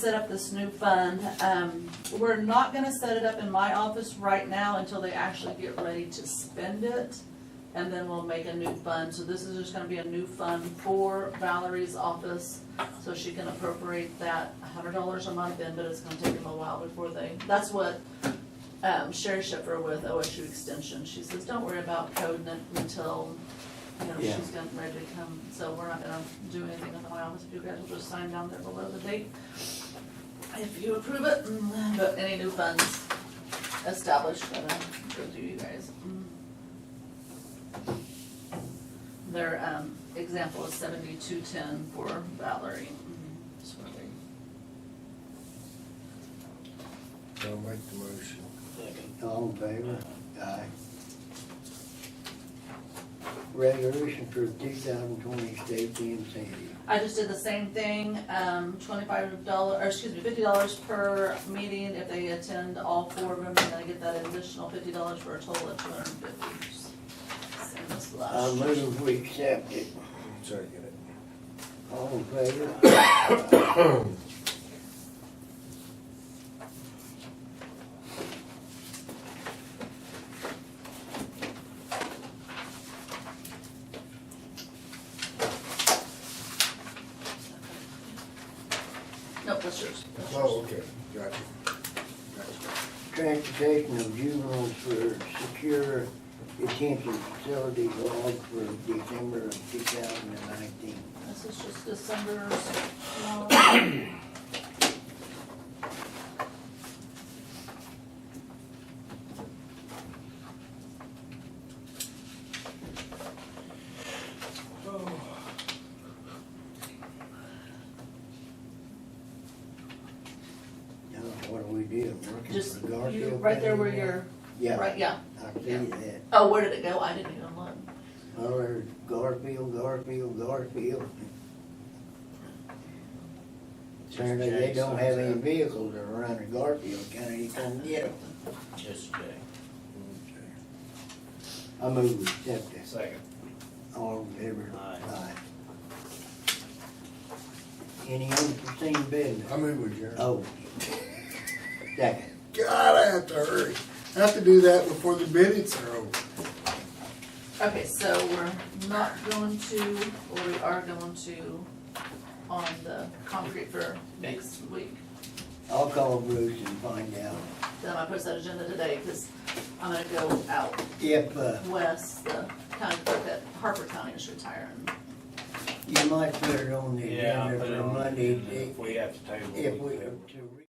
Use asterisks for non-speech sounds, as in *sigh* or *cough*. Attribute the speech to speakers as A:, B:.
A: set up this new fund. Um, we're not gonna set it up in my office right now until they actually get ready to spend it. And then we'll make a new fund. So this is just gonna be a new fund for Valerie's office. So she can appropriate that hundred dollars a month in, but it's gonna take them a while before they, that's what um, Sherry Shipper with OSU Extension, she says, don't worry about coding it until, you know,
B: Yeah.
A: she's getting ready to come. So we're not gonna do anything in my office. You guys will just sign down there below the date if you approve it, mm, but any new funds established, gotta go through you guys. Mm. Their, um, example is seventy-two ten for Valerie. Mm, just wondering.
C: I'll make the motion.
B: All in favor? Aye. Resolution for two thousand twenty state DMC.
A: I just did the same thing, um, twenty-five dollar, or excuse me, fifty dollars per meeting if they attend all four of them, and then I get that additional fifty dollars for a total of two hundred and fifty. Same as last
B: I
A: year.
B: move we accept it.
C: Second it.
B: All in favor? Aye.
A: Nope, that's yours.
C: Oh, okay, got you. Got you.
B: Transportation of juveniles for secure detention facility log for December of two thousand and nineteen.
A: This is just
B: *coughs*
A: December's, uh,
B: Now, what do we do? Working
A: just,
B: for
A: you,
B: Garfield?
A: right there where
B: County?
A: you're,
B: Yeah,
A: right, yeah.
B: I see that.
A: Oh, where did it go? I didn't even look.
B: Well, there's Garfield, Garfield, Garfield. Apparently they don't have any
D: uh,
B: vehicles around the Garfield County, you come get them.
D: Just check.
B: I move we accept this.
D: Second.
B: All in favor?
D: Aye.
B: Any unforeseen business?
C: I move with you.
B: Oh. Second.
C: God, I have to hurry. I have to do that before the minutes are over.
A: Okay, so we're not going to, or we are going to on the concrete for next week.
B: I'll call Bruce and find out
A: Then I post that agenda today, cause I'm gonna go out
B: if, uh,
A: west, the county clerk at Harper County is retiring.
B: you might put it on the
D: Yeah, I'll
B: agenda
D: put it
B: for
D: on.
B: Monday.
D: If we have to table.
B: If
D: can
B: we,
D: table.
B: to re-